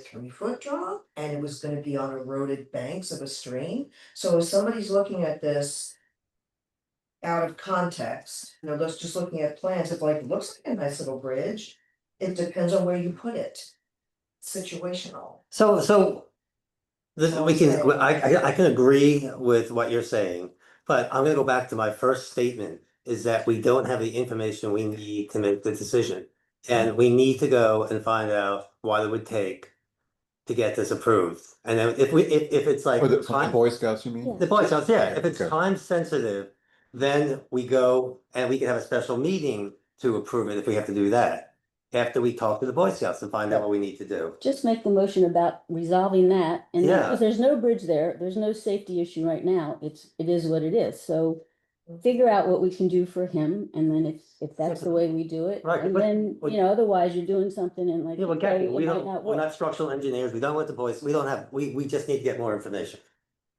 three foot drop and it was gonna be on eroded banks of a stream. So if somebody's looking at this. Out of context, you know, that's just looking at plans, it's like, it looks like a nice little bridge. It depends on where you put it. Situational. So, so. This, we can, Okay. I, I, I can agree with what you're saying, but I'm gonna go back to my first statement, is that we don't have the information we need to make the decision. And we need to go and find out what it would take to get this approved. And then if we, if, if it's like. For the, for the time- Boy Scouts, you mean? The Boy Scouts, yeah, if it's Okay. time sensitive, then we go and we can have a special meeting to approve it if we have to do that. After we talk to the Boy Scouts and find out what we need to do. Just make the motion about resolving that, and Yeah. because there's no bridge there, there's no safety issue right now, it's, it is what it is, so. Figure out what we can do for him, and then if, if that's the way we do it, Right, and but- then, but- you know, otherwise you're doing something and like. Yeah, well, okay, Kathy, it we might don't, not we're work. not structural engineers, we don't want the boys, we don't have, we, we just need to get more information.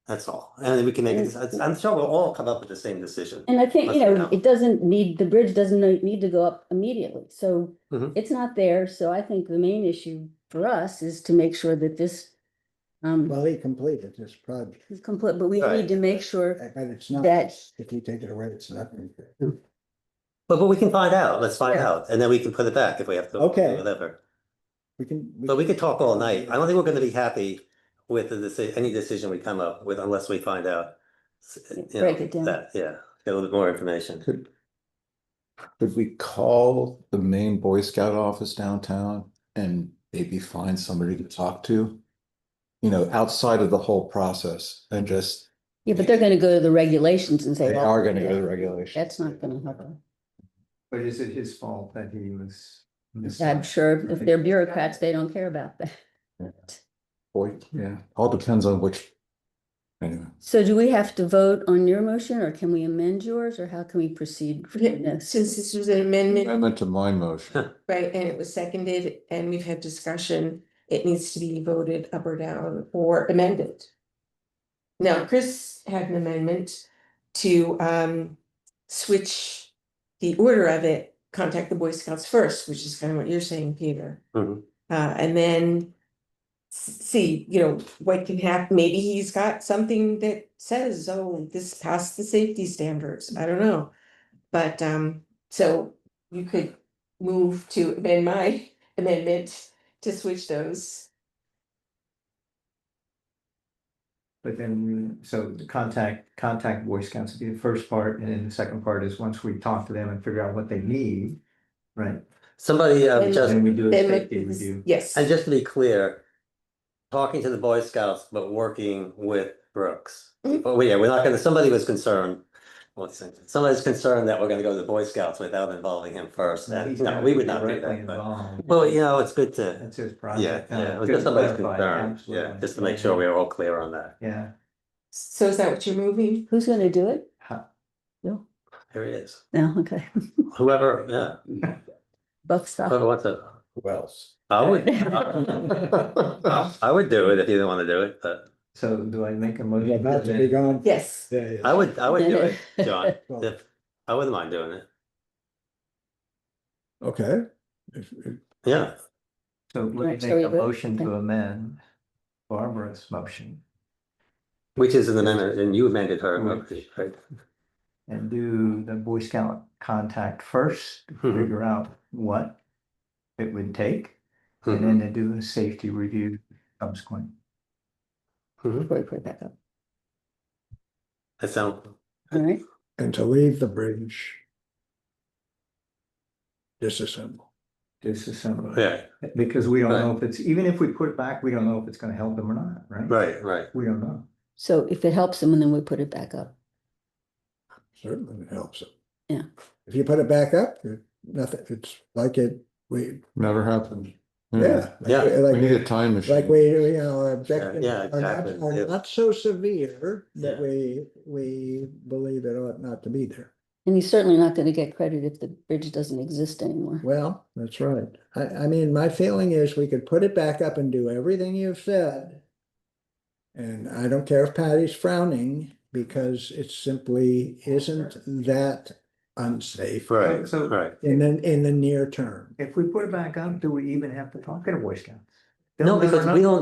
That's all, and then we can make, it. Mm. I'm sure we'll all come up with the same decision. And I think, you Let's know, go. it doesn't need, the bridge doesn't no- need to go up immediately, so Mhm. it's not there, so I think the main issue for us is to make sure that this. Um, Well, he completed this project, is complete, but we Right. need to make sure, but it's not, That- if you take it away, it's nothing. But, but we can find out, let's find Yeah. out, and then we can put it back if we have to. Okay. Whatever, We can. but we could talk all night, I don't think we're gonna be happy with the decision, any decision we come up with unless we find out. s- Yeah, you break know, it down. that- Yeah, get a little bit more information. Could, could we call the main Boy Scout office downtown and maybe find somebody to talk to? You know, outside of the whole process and just, yeah, but they're gonna go to the regulations and say. they well, are gonna go yeah. to regulation. That's not gonna happen. But is it his fault that he was? I'm sure if they're bureaucrats, they don't care about that. Boy, yeah, all depends on which. Anyway, So do we have to vote on your motion or can we amend yours or how can we proceed? from Yeah, this? Since this was an amendment, amendment to my motion. right, and it was seconded and we've had discussion, it needs to be voted up or down or amended. Now, Chris had an amendment to um switch the order of it, contact the Boy Scouts first, which is kind of what you're saying, Peter. Mhm. Uh, and then s- see, you know, what can happen, maybe he's got something that says, oh, this passed the safety standards, I don't know. But um, so you could move to amend my amendment to switch those. But then, we- so the contact, contact Boy Scouts would be the first part, and then the second part is once we talk to them and figure out what they need. Right, Somebody, uh, And- just, then we do a Then with safety this- review. Yes, and just to be clear, talking to the Boy Scouts, but working with Brooks. Mhm. But we- yeah, we're not gonna, somebody was concerned, what's it, somebody's concerned that we're gonna go to the Boy Scouts without involving him first, So and he's no, gotta we be would not do directly that, but. involved. Well, you know, it's good to, That's his yeah, project. yeah, it was Good just somebody's clarify, concern, yeah, absolutely. just to make sure we're all clear on that, Yeah, so is that what you're moving? Who's gonna do it? Ha- No, there he is, no, okay. whoever, yeah, Buck stop. whoever wants to, Who else? I would. I would do it if you didn't wanna do it, but so do I make a You're motion? about to be gone. Yes. Yeah, yeah. I would, I would do it, John, if, I wouldn't mind doing it, Okay. If- if- yeah. So let Right, me so make we a vote- motion to amend Barbara's motion. Which is an amendment, and you amended her, Mm-hmm. Which- right? and do the Boy Scout contact first, to Mm-hmm. Mhm. figure out what it would take, and Mhm. then to do a safety review subsequent. Before we Mm-hmm. put it back up. That sound, All right, And to leave the bridge. Disassemble. Disassemble. yeah, Because we don't know if it's, even if we put it back, we don't know if it's gonna help them or not, right? right, right, We don't know. so if it helps them, then we put it back up. Certainly helps it. Yeah. If you put it back up, it- nothing, it's like it, we, Never happened. yeah. Hmm. Yeah. We need Like, a time machine. like we, you know, our objectives yeah, are not, exactly, yeah. are not so severe that Yeah. we, we believe it ought not to be there. And he's certainly not gonna get credit if the bridge doesn't exist anymore. Well, that's right. I, I mean, my feeling is we could put it back up and do everything you've said. And I don't care if Patty's frowning because it simply isn't that unsafe right, So- right. in the, in the near term. If we put it back up, do we even have to talk to the Boy Scouts? They'll No, never because know. we don't